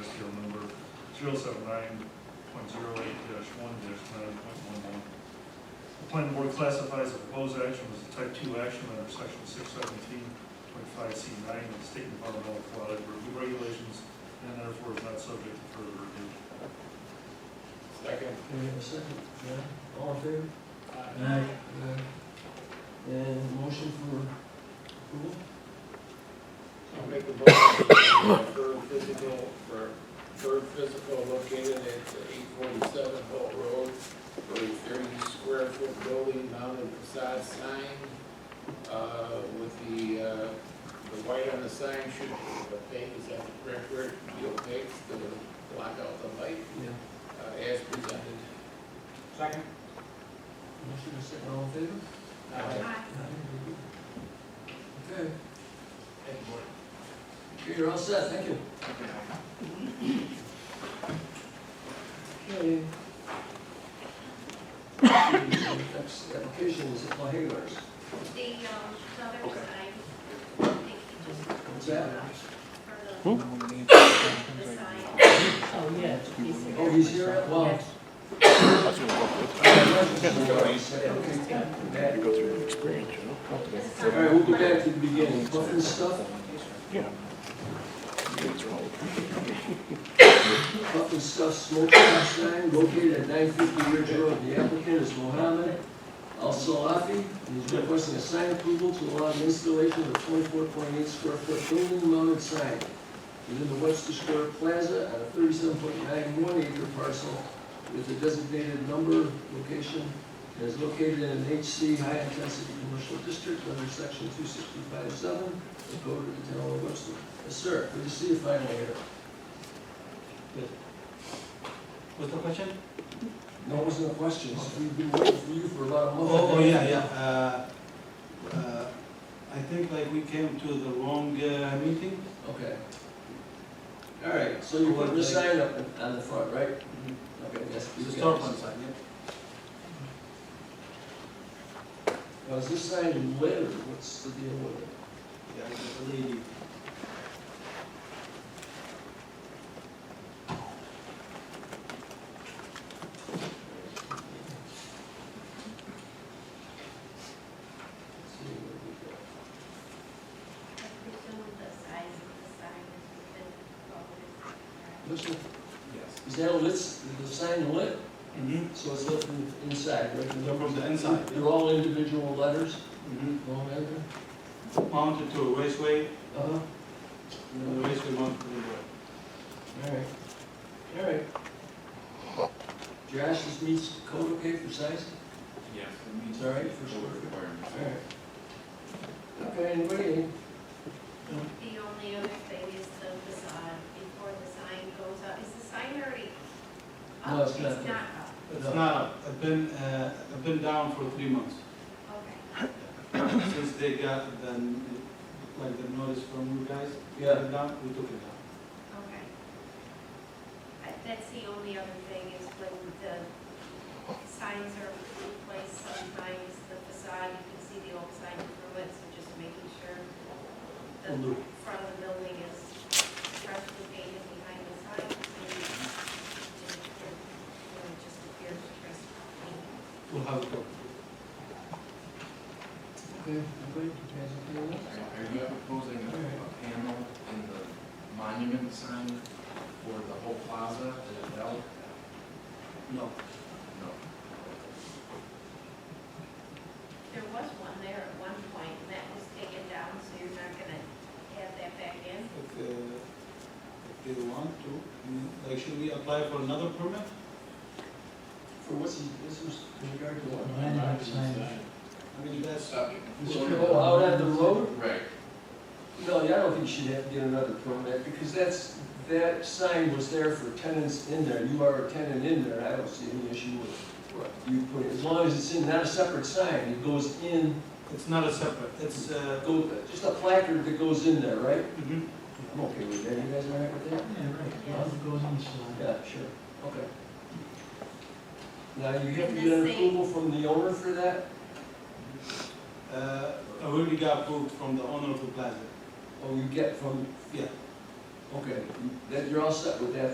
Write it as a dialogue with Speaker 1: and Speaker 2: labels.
Speaker 1: zero oh seven nine point zero eight dash one dash nine point one one. The planning board classifies the proposed action as a type two action under section six seventeen point five C nine of the state environmental quality review regulations, and therefore is not subject to further review.
Speaker 2: Second.
Speaker 3: Can we have a second? Yeah, all in favor?
Speaker 2: Aye.
Speaker 3: Aye. And motion for approval?
Speaker 2: I'll make a motion for third physical, for third physical located at eight forty-seven Holt Road, for a thirty square foot building mounted facade sign, uh, with the, uh, the white on the sign should be opaque, is that the correct word? Be opaque, to block out the light,
Speaker 3: Yeah.
Speaker 2: uh, as presented.
Speaker 4: Second?
Speaker 3: Motion is second, all in favor?
Speaker 2: Now,
Speaker 3: Aye. very good. Okay, Okay, you're all set, thank you. Okay. Next application is Lahagars.
Speaker 5: The, um, southern side, I think he just.
Speaker 3: What's that?
Speaker 5: For the, the side.
Speaker 6: Oh, yeah. he's here.
Speaker 3: Oh, he's here at, well. Okay.
Speaker 7: go through the experience, you know?
Speaker 3: All right, we'll go back to the beginning, Clifton stuff,
Speaker 7: Yeah.
Speaker 3: Clifton stuff smoking sign located at nine fifty Ridge Road. The applicant is Mohammed Al Salafi. He's requesting a sign approval to allow the installation of a twenty-four point eight square foot building mounted sign within the Webster Square Plaza on a thirty-seven point nine one acre parcel with a designated number, location, and is located in an HC High Intensity Commercial District under section two sixty-five seven the Code of the Town of Webster. Yes, sir, good to see you finally here.
Speaker 4: What's the question?
Speaker 3: No, it wasn't a question, so we've been waiting for you for about a month.
Speaker 4: Oh, oh, yeah, yeah, uh, uh, I think like we came to the wrong, uh, meeting.
Speaker 3: Okay. All right, so you put the sign up on the front, right?
Speaker 4: Mhm.
Speaker 3: Okay, yes.
Speaker 4: It's a
Speaker 3: you
Speaker 4: storefront
Speaker 3: guys.
Speaker 4: sign, yeah.
Speaker 3: Now, is this sign lit or what's the deal with it?
Speaker 4: Yeah, it's a lady.
Speaker 3: Let's see what we got.
Speaker 5: I presume the size of the sign is within the
Speaker 3: Looks like-
Speaker 4: Yes.
Speaker 3: Is that a lit, is the sign lit?
Speaker 4: Mm-hmm.
Speaker 3: So it's lit from the inside, right?
Speaker 4: Yeah, from the inside, yeah.
Speaker 3: They're all individual letters,
Speaker 4: Mm-hmm.
Speaker 3: all matter?
Speaker 4: Mounted to a raceway,
Speaker 3: Uh-huh,
Speaker 4: and the raceway mounted to the road.
Speaker 3: all right, all right. Josh, this meets code okay for size?
Speaker 7: Yes.
Speaker 3: It's all right for sure. All right. Okay, anybody?
Speaker 5: The only other thing is the facade, before the sign goes up, is the sign already up?
Speaker 3: No, it's not.
Speaker 5: It's not up,
Speaker 4: It's not, up. I've been, uh, I've been down for three months,
Speaker 5: okay.
Speaker 4: since they got the, like, the notice from you guys.
Speaker 3: Yeah.
Speaker 4: It down, We took it down.
Speaker 5: Okay. I- That's the only other thing is when the signs are replaced, sometimes the facade, you can see the old sign through it, so just making sure the
Speaker 3: Will do.
Speaker 5: front of the building is freshly painted behind the sign. so you just appear- you know, it just appears fresh paint.
Speaker 4: We'll have it go.
Speaker 3: Okay, anybody? You guys okay with that?
Speaker 7: Are you proposing a a panel in the monument sign for the whole plaza as well?
Speaker 4: No.
Speaker 7: No.
Speaker 5: There was one there at one point, and that was taken down, so you're not gonna add that back in?
Speaker 4: If, uh, if they want to, I mean, like, should we apply for another permit?
Speaker 3: For what's, he- this was in regard to what?
Speaker 4: I mean, that's,
Speaker 7: Subject.
Speaker 3: Oh, out at the road?
Speaker 7: Right.
Speaker 3: No, yeah, I don't think you should have to get another permit, because that's, that sign was there for tenants in there, you are a tenant in there, I don't see any issue with you putting, as long as it's in, not a separate sign, it goes in,
Speaker 4: it's not a separate, it's, uh,
Speaker 3: go, just a placard that goes in there, right?
Speaker 4: mhm.
Speaker 3: I'm okay with that, you guys all right with that?
Speaker 6: Yeah, right, yeah, it goes on the side.
Speaker 3: Yeah, sure, okay. Now, you have to get an approval from the owner for that?
Speaker 4: uh, I already got approved from the owner of the plaza,
Speaker 3: Oh, you get from,
Speaker 4: yeah.
Speaker 3: okay, that, you're all set with that